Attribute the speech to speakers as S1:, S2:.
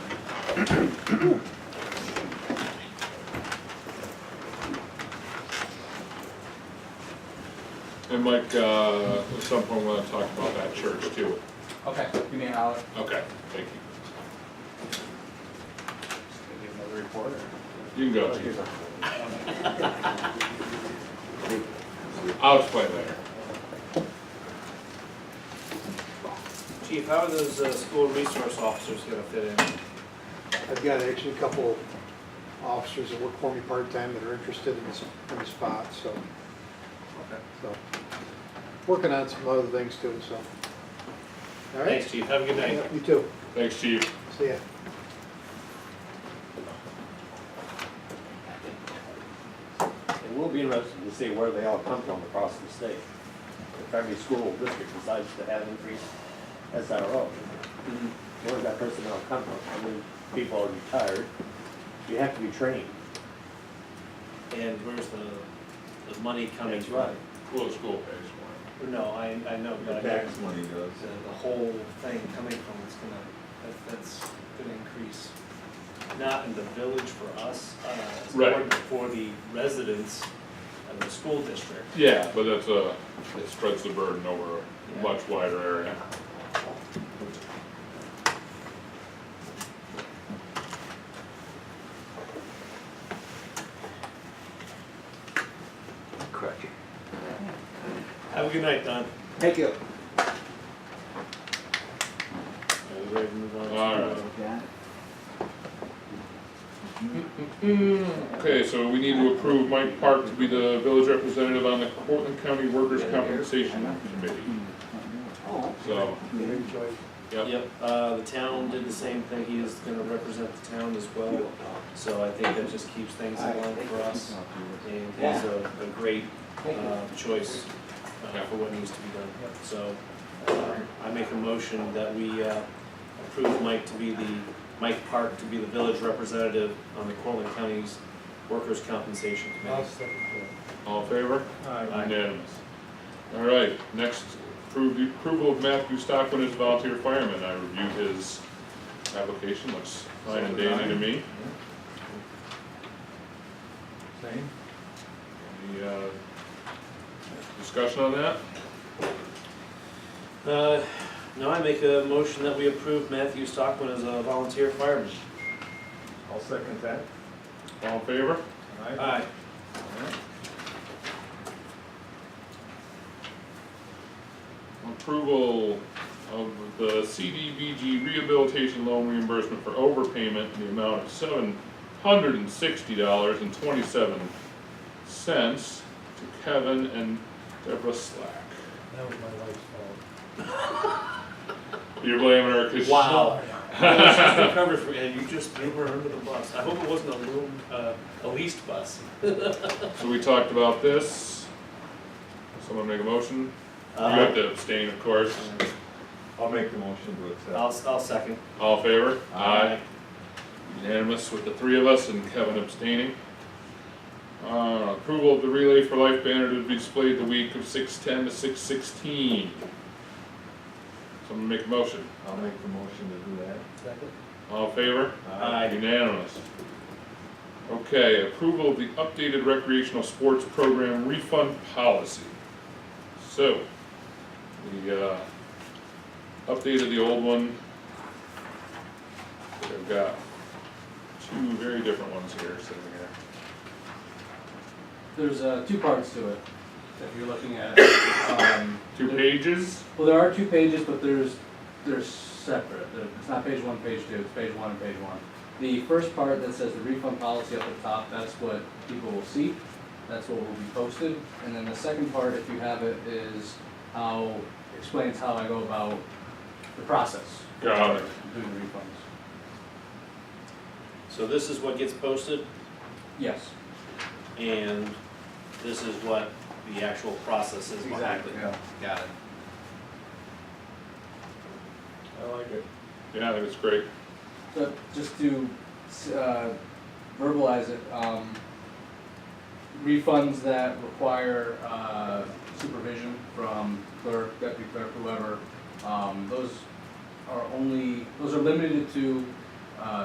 S1: And Mike, uh, at some point, we'll talk about that church too.
S2: Okay, give me a holler.
S1: Okay, thank you.
S2: Just gonna give another report or?
S1: You can go, Chief.
S2: Okay.
S1: I'll explain later.
S3: Chief, how are those uh, school resource officers gonna fit in?
S4: I've got actually a couple officers that work for me part-time that are interested in this, in the spot, so, so. Working on some other things too, so. All right?
S3: Thanks, Chief, have a good night.
S4: Yeah, You too.
S1: Thanks, Chief.
S4: See ya.
S5: It will be interesting to see where they all come from across the state. If every school district decides to have increased SRO, where does that personnel come from? I mean, people are retired, you have to be trained.
S3: And where's the, the money coming
S5: That's
S3: from?
S5: right.
S1: Well, the school pays
S3: No, I, I know, but I mean,
S6: Tax money does.
S3: the, the whole thing coming from, it's gonna, that, that's gonna increase. Not in the village for us, uh, as a
S1: Right.
S3: board, but for the residents of the school district.
S1: for it. Yeah, but that's a, it spreads the burden over a much wider area.
S6: Correct.
S3: Have a good night, Don.
S2: Thank you.
S3: Are we ready to move on? to-
S1: All right. Okay, so we need to approve Mike Park to be the village representative on the Portland County Workers' Compensation Committee. So,
S4: Enjoy.
S1: yep,
S3: Yep, uh, the town did the same thing, he is gonna represent the town as well, so I think that just keeps things in line for us. And he's a, a great, uh, choice, uh, for what needs to be done, so, uh, I make a motion that we, uh, approve Mike to be the, Mike Park to be the village representative on the Cortland County's Workers' Compensation Committee.
S1: all in favor?
S3: Aye.
S1: Unanimous. All right, next, approve the approval of Matthew Stockman as volunteer fireman. I reviewed his application, looks fine and dandy to me.
S6: Same?
S1: Any, uh, discussion on that?
S3: Uh, now I make a motion that we approve Matthew Stockman as a volunteer fireman.
S6: I'll second that.
S1: All in favor?
S6: Aye.
S3: Aye.
S1: Approval of the CDBG rehabilitation loan reimbursement for overpayment in the amount of seven hundred and sixty dollars and twenty-seven cents to Kevin and Deborah Slack.
S7: That was my wife's fault.
S1: You're blaming her because.
S3: Wow. She's the cover for, and you just threw her under the bus. I hope it wasn't a room, uh, a leased bus.
S1: So we talked about this. Someone make a motion? You have
S3: Uh,
S1: to abstain, of course.
S6: I'll make the motion to accept.
S3: I'll, I'll second.
S1: All in favor?
S3: Aye.
S1: Unanimous with the three of us and Kevin abstaining. Uh, approval of the Relay for Life banner to be displayed the week of six ten to six sixteen. Someone make a motion.
S6: I'll make the motion to do that.
S3: Second.
S1: All in favor?
S3: Aye.
S1: Unanimous. Okay, approval of the updated recreational sports program refund policy. So, we, uh, updated the old one. We've got two very different ones here sitting here.
S7: There's, uh, two parts to it that you're looking at. Um,
S1: Two
S7: there-
S1: pages?
S7: Well, there are two pages, but there's, they're separate. There- It's not page one, page two, it's page one and page one. The first part that says the refund policy up at the top, that's what people will see. That's what will be posted. And then the second part, if you have it, is how, explains how I go about the process.
S1: Got it.
S7: of Doing the refunds.
S3: So this is what gets posted
S7: Yes,
S3: and this is what the actual process is behind
S7: exactly.
S3: it.
S7: Got it.
S6: I like it.
S1: Yeah, I think it's great.
S7: But just to uh, verbalize it, um, refunds that require uh, supervision from clerk, deputy clerk, whoever, um, those are only, those are limited to